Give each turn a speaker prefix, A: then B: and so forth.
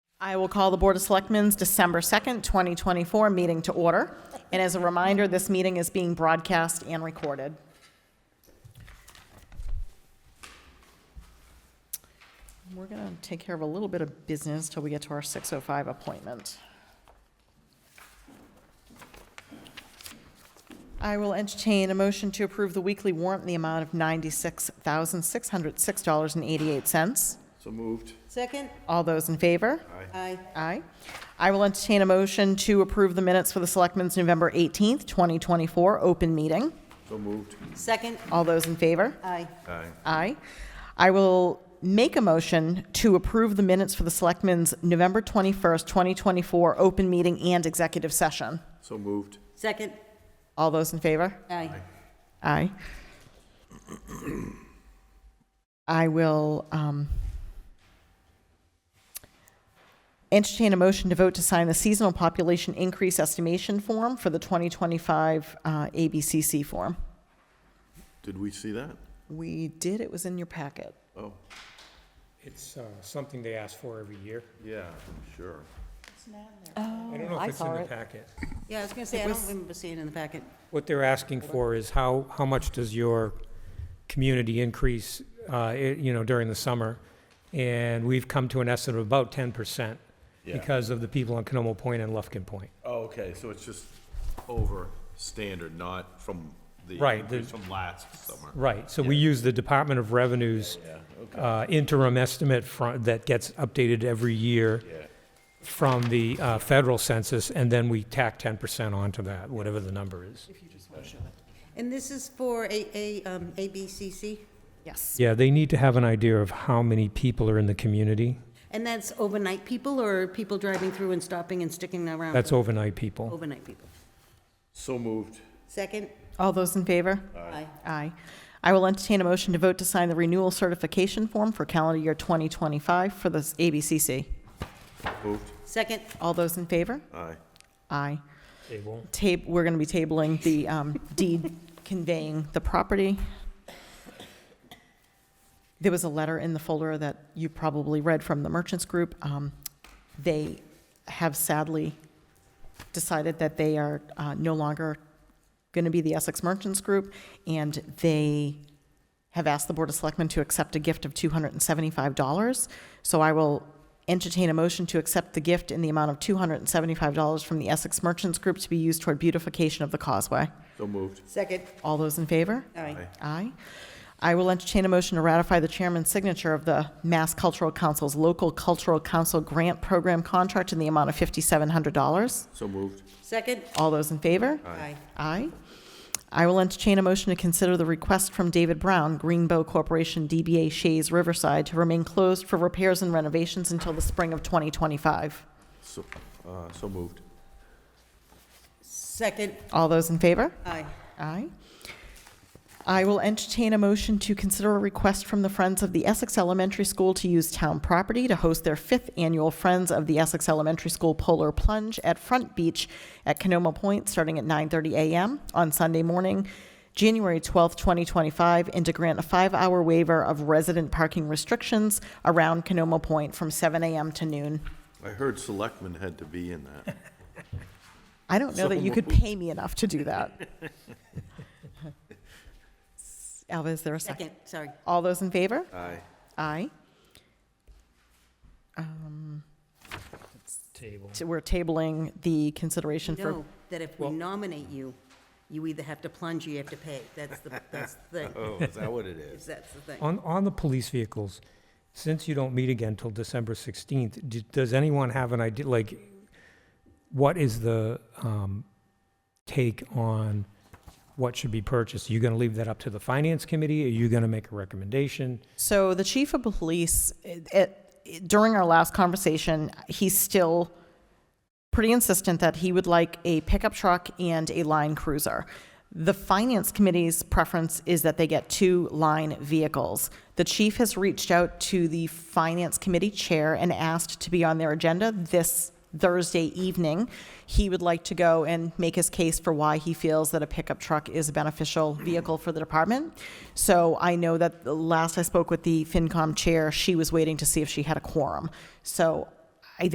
A: I will call the Board of Selectmen's December 2nd, 2024 meeting to order. And as a reminder, this meeting is being broadcast and recorded. We're going to take care of a little bit of business till we get to our 6:05 appointment. I will entertain a motion to approve the weekly warrant in the amount of $96,606.88.
B: So moved.
C: Second?
A: All those in favor?
C: Aye.
A: Aye. I will entertain a motion to approve the minutes for the Selectmen's November 18th, 2024, open meeting.
B: So moved.
C: Second?
A: All those in favor?
C: Aye.
B: Aye.
A: Aye. I will make a motion to approve the minutes for the Selectmen's November 21st, 2024, open meeting and executive session.
B: So moved.
C: Second?
A: All those in favor?
C: Aye.
A: Aye. I will um, entertain a motion to vote to sign the seasonal population increase estimation form for the 2025 uh, ABCC form.
B: Did we see that?
A: We did, it was in your packet.
B: Oh,
D: It's uh, something they ask for every year.
B: yeah, I'm sure.
D: I don't know
A: Oh, I
D: if it's in
A: saw
D: the
A: it.
D: packet.
C: Yeah, I was gonna say, I don't remember seeing it in the packet.
D: What they're asking for is how, how much does your community increase, uh, i- you know, during the summer? And we've come to an estimate of about 10%
B: Yeah.
D: because of the people on Canomo Point and Lufkin Point.
B: Oh, okay, so it's just over standard, not from the.
D: Right, the-
B: increase From last summer.
D: Right, so we use the Department of Revenue's uh, interim estimate fro- that gets updated every year
B: Yeah.
D: from the uh, federal census, and then we tack 10% onto that, whatever the number is.
C: And this is for A, A, um, ABCC?
A: Yes.
D: Yeah, they need to have an idea of how many people are in the community.
C: And that's overnight people or people driving through and stopping and sticking around?
D: That's
C: for-
D: overnight people.
C: Overnight people.
B: So moved.
C: Second?
A: All those in favor?
C: Aye.
A: Aye. I will entertain a motion to vote to sign the renewal certification form for calendar year 2025 for the ABCC.
B: Moved.
C: Second?
A: All those in favor?
B: Aye.
A: Aye.
D: They won't.
A: tab, we're going to be tabling the um, deed conveying the property. There was a letter in the folder that you probably read from the merchants group. Um, They have sadly decided that they are uh, no longer going to be the Essex Merchants Group, and they have asked the Board of Selectmen to accept a gift of $275. So I will entertain a motion to accept the gift in the amount of $275 from the Essex Merchants Group to be used toward beautification of the causeway.
B: So moved.
C: Second.
A: All those in favor?
C: Aye.
A: Aye. I will entertain a motion to ratify the chairman's signature of the Mass Cultural Council's Local Cultural Council Grant Program contract in the amount of $5,700.
B: So moved.
C: Second?
A: All those in favor?
C: Aye.
A: Aye. I will entertain a motion to consider the request from David Brown, Greenbow Corporation, DBA Shays Riverside, to remain closed for repairs and renovations until the spring of 2025.
B: So, uh, so moved.
C: Second?
A: All those in favor?
C: Aye.
A: Aye. I will entertain a motion to consider a request from the Friends of the Essex Elementary School to use town property to host their fifth annual Friends of the Essex Elementary School Polar Plunge at Front Beach at Canoma Point, starting at 9:30 a.m. on Sunday morning, January 12th, 2025, and to grant a five-hour waiver of resident parking restrictions around Canoma Point from 7 a.m. to noon.
B: I heard selectmen had to be in that.
A: I don't know that you could pay me enough to do that. Alva, is there a second?
C: Second, sorry.
A: All those in favor?
B: Aye.
A: Aye.
D: Table.
A: So Um, We're tabling the consideration for,
C: Know that if we nominate you, you either have to plunge or you have to pay. That's the, that's the,
B: Oh, is that what it is?
C: that's the thing.
D: On, on the police vehicles, since you don't meet again till December 16th, d- does anyone have an idea, like, what is the um, take on what should be purchased? Are you going to leave that up to the finance committee? Are you going to make a recommendation?
A: so the chief of police, eh, eh, during our last conversation, he's still pretty insistent that he would like a pickup truck and a line cruiser. The finance committee's preference is that they get two line vehicles. The chief has reached out to the finance committee chair and asked to be on their agenda this Thursday evening. He would like to go and make his case for why he feels that a pickup truck is a beneficial vehicle for the department. So I know that the last I spoke with the FinCom chair, she was waiting to see if she had a quorum. So